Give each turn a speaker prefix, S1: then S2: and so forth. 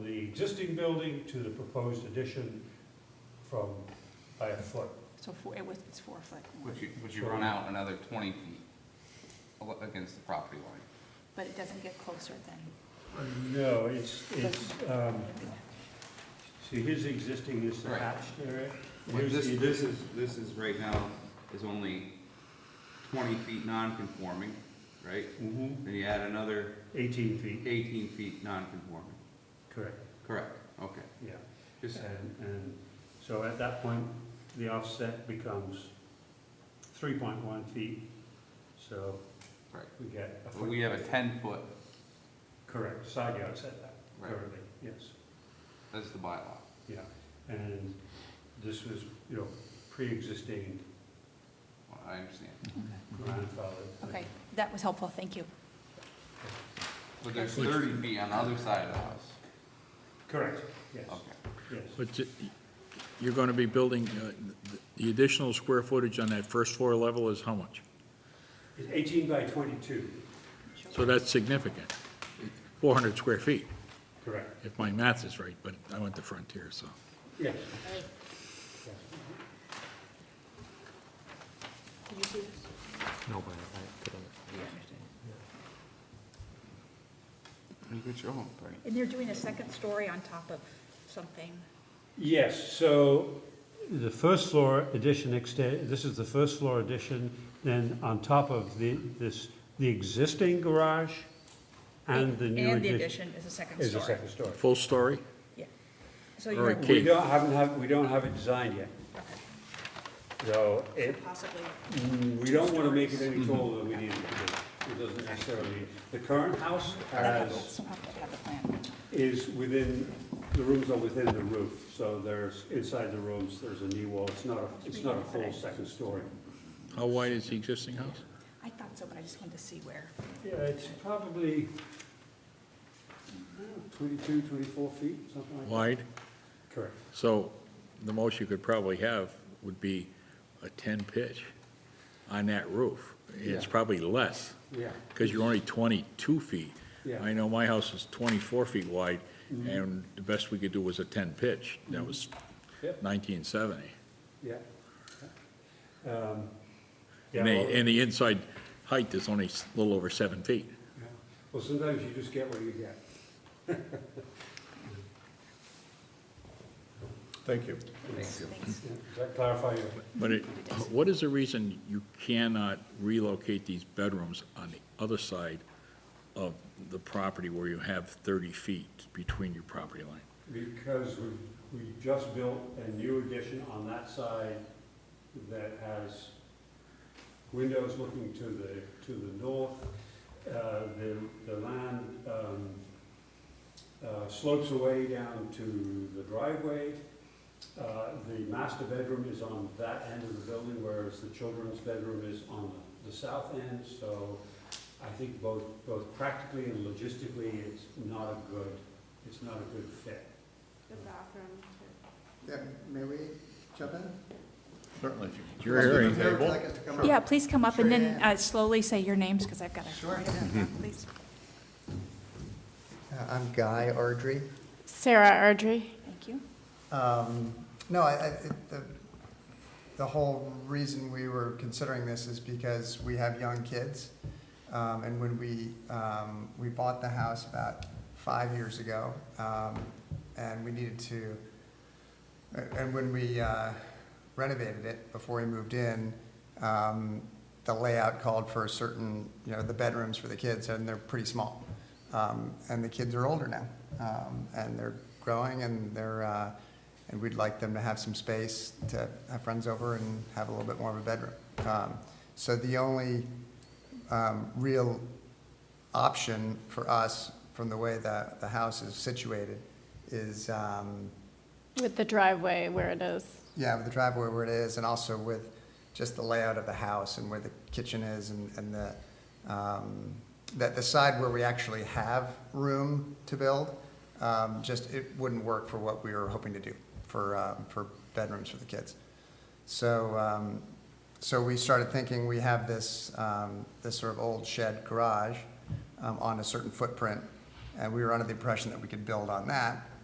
S1: existing building to the proposed addition from, by a foot.
S2: So four, it was, it's four foot,
S3: Would you, would you run out another twenty feet al- against the property line?
S2: but it doesn't get closer than,
S1: No, it's, it's, um, see, his existing is the
S3: Right.
S1: hatched area.
S3: Like
S1: Here's
S3: this,
S1: the
S3: this is, this is right now is only twenty feet non-conforming, right?
S1: Mhm,
S3: Then you add another
S1: Eighteen feet,
S3: eighteen feet non-conforming,
S1: correct,
S3: correct, okay.
S1: yeah.
S3: Just,
S1: And, and so at that point, the offset becomes three point one feet, so
S3: right,
S1: we get a
S3: but
S1: foot.
S3: we have a ten-foot,
S1: Correct, side yard setback
S3: right,
S1: currently, yes,
S3: that's the bylaw.
S1: yeah. And this was, you know, pre-existing
S3: Well, I understand.
S1: grandfathered.
S2: okay, that was helpful, thank you.
S3: But there's thirty feet on the other side of the house,
S1: Correct, yes,
S3: okay.
S1: yes.
S4: But you- you're going to be building, uh, the additional square footage on that first floor level is how much?
S1: It's eighteen by twenty-two,
S4: So that's significant, 400 square feet,
S1: correct,
S4: if my math is right, but I went to Frontier, so.
S1: yes.
S2: Did you see this?
S5: No, but I couldn't.
S3: You could show them, Bernie.
S2: And they're doing a second story on top of something.
S1: Yes, so the first floor addition extend, this is the first floor addition, then on top of the, this, the existing garage and the new
S6: And the
S1: addition.
S6: addition is a second
S1: Is a
S6: story.
S1: second story.
S4: Full story?
S6: So
S4: or
S6: you're
S4: a
S1: We
S4: Keith.
S1: don't, haven't have, we don't have it designed yet, so it,
S6: possibly,
S1: Mm, We don't want to make it any taller than we need it to be. It doesn't necessarily, the current house has,
S2: Somehow I have the plan.
S1: is within, the rooms are within the roof. So there's, inside the rooms, there's a knee wall. It's not, a it's not a full second story.
S4: How wide is the existing house?
S2: I thought so, but I just wanted to see where.
S1: Yeah, it's probably mm, 22, 24 feet, something like that.
S4: Wide?
S1: Correct.
S4: So the most you could probably have would be a 10 pitch on that roof. It's
S1: Yeah.
S4: probably less,
S1: Yeah,
S4: because you're only 22 feet.
S1: Yeah. Mm-hmm.
S4: I know my house is 24 feet wide, and the best we could do was a 10 pitch. That was
S1: Yep.
S4: 1970.
S1: yeah. Um, yeah,
S4: And
S1: well-
S4: the, and the inside height is only s- a little over seven feet.
S1: Yeah. Well, sometimes you just get what you get.
S4: Thank you.
S2: Thanks.
S1: Yeah, Does that clarify your?
S4: But it, what is the reason you cannot relocate these bedrooms on the other side of the property where you have 30 feet between your property line?
S1: Because we, we just built a new addition on that side that has windows looking to the, to the north. Uh, The, the land um, uh, slopes away down to the driveway. Uh, The master bedroom is on that end of the building, whereas the children's bedroom is on the south end. So I think both, both practically and logistically, it's not a good, it's not a good fit.
S7: The bathroom, too.
S8: Yeah, may we jump in?
S5: Certainly.
S4: You're hearing.
S8: Whoever would like us to come up?
S2: Yeah, please come up and then
S8: Sure.
S2: uh, slowly say your names, because I've got to.
S8: Sure,
S2: Please.
S8: Uh, I'm Guy Ardrey.
S7: Sarah Ardrey.
S2: Thank you.
S8: Um, No, I, I, it- the, the whole reason we were considering this is because we have young kids. Um, and when we, um, we bought the house about five years ago, um, and we needed to, a- and when we, uh, renovated it before we moved in, um, the layout called for a certain, you know, the bedrooms for the kids, and they're pretty small. Um, and the kids are older now, um, and they're growing, and they're, uh, and we'd like them to have some space to have friends over and have a little bit more of a bedroom. Um, so the only um, real option for us, from the way that the house is situated, is, um,
S7: With the driveway where it is.
S8: yeah, with the driveway where it is, and also with just the layout of the house and where the kitchen is and, and the, um, that the side where we actually have room to build, um, just, it wouldn't work for what we were hoping to do for, um, for bedrooms for the kids. So, um, so we started thinking, we have this, um, this sort of old shed garage, um, on a certain footprint, and we were under the impression that we could build on that,